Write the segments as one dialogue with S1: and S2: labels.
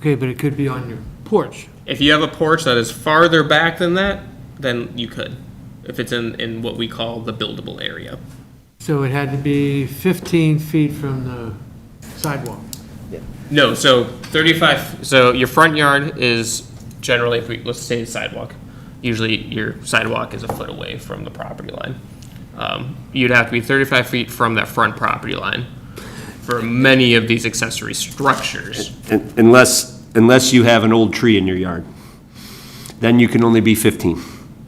S1: Okay, but it could be on your porch.
S2: If you have a porch that is farther back than that, then you could, if it's in, in what we call the buildable area.
S1: So it had to be 15 feet from the sidewalk.
S2: No, so 35, so your front yard is generally, if we, let's say the sidewalk, usually your sidewalk is a foot away from the property line. Um, You'd have to be 35 feet from that front property line for many of these accessory structures.
S3: Un- Unless, unless you have an old tree in your yard, then you can only be 15.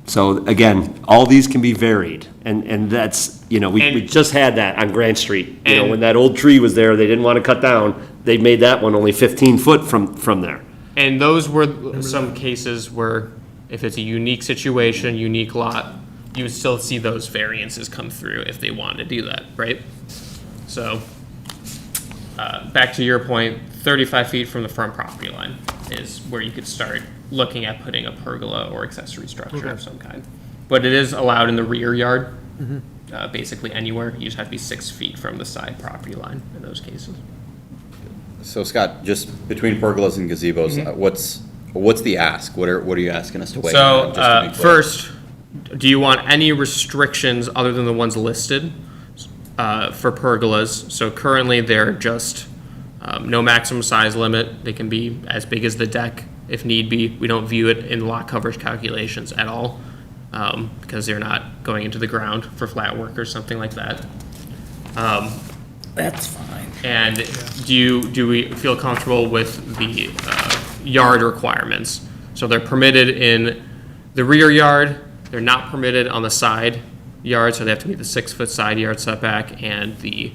S3: So again, all these can be varied, and, and that's, you know, we, we
S2: And-
S3: just had that on Grand Street. You know,
S2: And-
S3: when that old tree was there, they didn't want to cut down, they made that one only 15 foot from, from there.
S2: And those were some cases where if it's a unique situation, unique lot, you would still see those variances come through if they wanted to do that, right? So, uh, back to your point, thirty-five feet from the front property line is where you could start looking at putting a pergola or accessory structure of some kind. But it is allowed in the rear yard, uh, basically anywhere. You just have to be six feet from the side property line in those cases.
S4: So Scott, just between pergolas and gazebos, uh, what's, what's the ask? What are, what are you asking us to weigh? in
S2: So,
S4: on, just to
S2: uh,
S4: be clear?
S2: first, do you want any restrictions other than the ones listed uh, for pergolas? So currently, they're just um, no maximum size limit. They can be as big as the deck if need be. We don't view it in lot coverage calculations at all um, because they're not going into the ground for flat work or something like that.
S5: That's fine.
S2: And do you, do we feel comfortable with the uh, yard requirements? So they're permitted in the rear yard, they're not permitted on the side yard, so they have to meet the six-foot side yard setback and the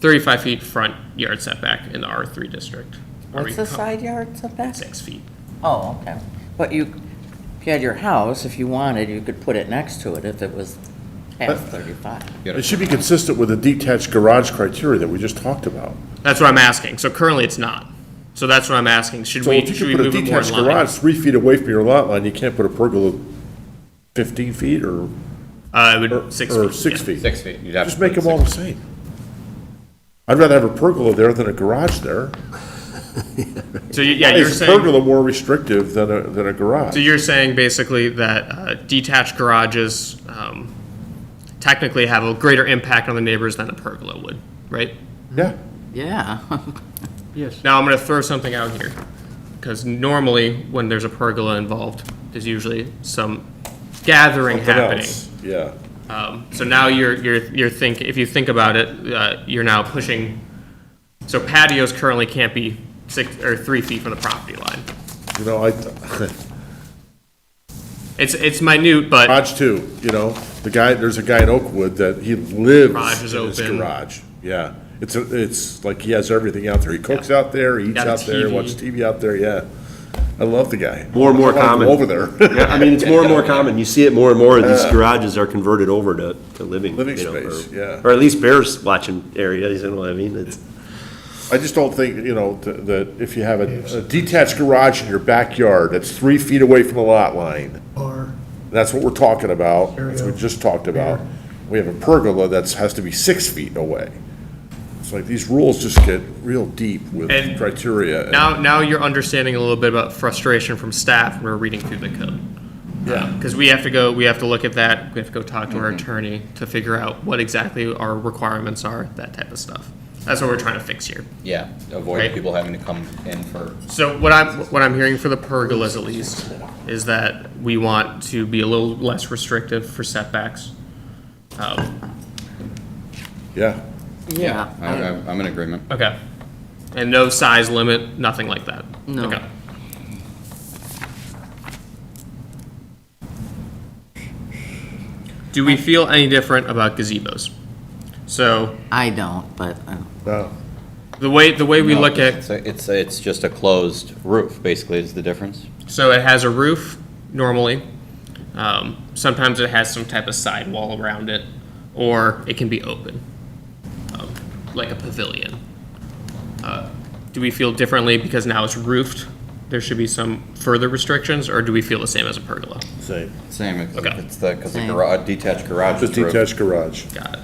S2: 35 feet front yard setback in the R3 district. Are we
S5: What's the
S2: com-
S5: side yard setback?
S2: Six feet.
S5: Oh, okay. But you, if you had your house, if you wanted, you could put it next to it if it was half 35.
S6: It should be consistent with the detached garage criteria that we just talked about.
S2: That's what I'm asking. So currently, it's not. So that's what I'm asking. Should
S6: So
S2: we,
S6: if
S2: should
S6: you
S2: we
S6: could put a
S2: move it more in
S6: detached
S2: line?
S6: garage three feet away from your lot line, you can't put a pergola 15 feet or,
S2: Uh, it
S6: or
S2: would, six feet.
S6: or six
S2: yeah.
S6: feet.
S4: Six feet, you'd have to.
S6: Just make
S4: put
S6: them all the
S4: six-
S6: same. I'd rather have a pergola there than a garage there.
S2: So you- yeah, you're
S6: Is a
S2: saying.
S6: pergola more restrictive than a, than a garage?
S2: So you're saying basically that uh, detached garages um, technically have a greater impact on the neighbors than a pergola would, right?
S6: Yeah.
S5: Yeah.
S1: Yes.
S2: Now, I'm going to throw something out here, because normally, when there's a pergola involved, there's usually some gathering
S6: Something
S2: happening.
S6: else. Yeah.
S2: Um, So now you're, you're, you're think, if you think about it, uh, you're now pushing, so patios currently can't be six, or three feet from the property line.
S6: You know, I,
S2: It's, it's minute, but.
S6: garage too, you know, the guy, there's a guy in Oakwood that he lives
S2: Garage is
S6: in his
S2: open.
S6: garage. Yeah, it's, a- it's like he has everything out there. He cooks out there, eats
S2: Got a
S6: out there,
S2: TV.
S6: watches TV out there, yeah. I love the guy.
S3: More and more
S6: I wanna go
S3: common.
S6: Over there.
S3: I mean, it's more and more common, you see it more and more, these garages are converted over to, to living.
S6: Living
S3: you know, or-
S6: space, yeah.
S3: Or at least bears watching areas, you know what I mean? It's-
S6: I just don't think, you know, th- that if you have a a detached garage in your backyard that's three feet away from the lot line,
S1: Or,
S6: that's what we're talking about, that's what
S1: Stereo.
S6: we just talked about. We have a pergola that's, has to be six feet away. It's like these rules just get real deep with
S2: And
S6: criteria. and-
S2: Now, now you're understanding a little bit about frustration from staff when we're reading through the code. Yeah. Because we have to go, we have to look at that, we have to go talk to our attorney to figure out what exactly our requirements are, that type of stuff. That's what we're trying to fix here.
S4: Yeah, avoid
S2: Right.
S4: people having to come in for,
S2: So what I'm, what I'm hearing for the pergolas at least, is that we want to be a little less restrictive for setbacks. Um,
S6: Yeah.
S4: yeah, I, I- I'm in agreement.
S2: Okay. And no size limit, nothing like that?
S5: No.
S2: Okay. Do we feel any different about gazebos? So,
S5: I don't, but uh,
S6: No.
S2: the way, the way we
S4: No,
S2: look at,
S4: It's, a- it's, a- it's just a closed roof, basically, is the difference.
S2: so it has a roof normally. Um, Sometimes it has some type of sidewall around it, or it can be open, um, like a pavilion. Uh, Do we feel differently because now it's roofed? There should be some further restrictions, or do we feel the same as a pergola?
S6: Same.
S4: Same, it's,
S2: Okay.
S4: it's the, because the
S5: Same.
S4: garage, detached garage
S6: Just
S4: is roof.
S6: detached garage.
S2: Got it.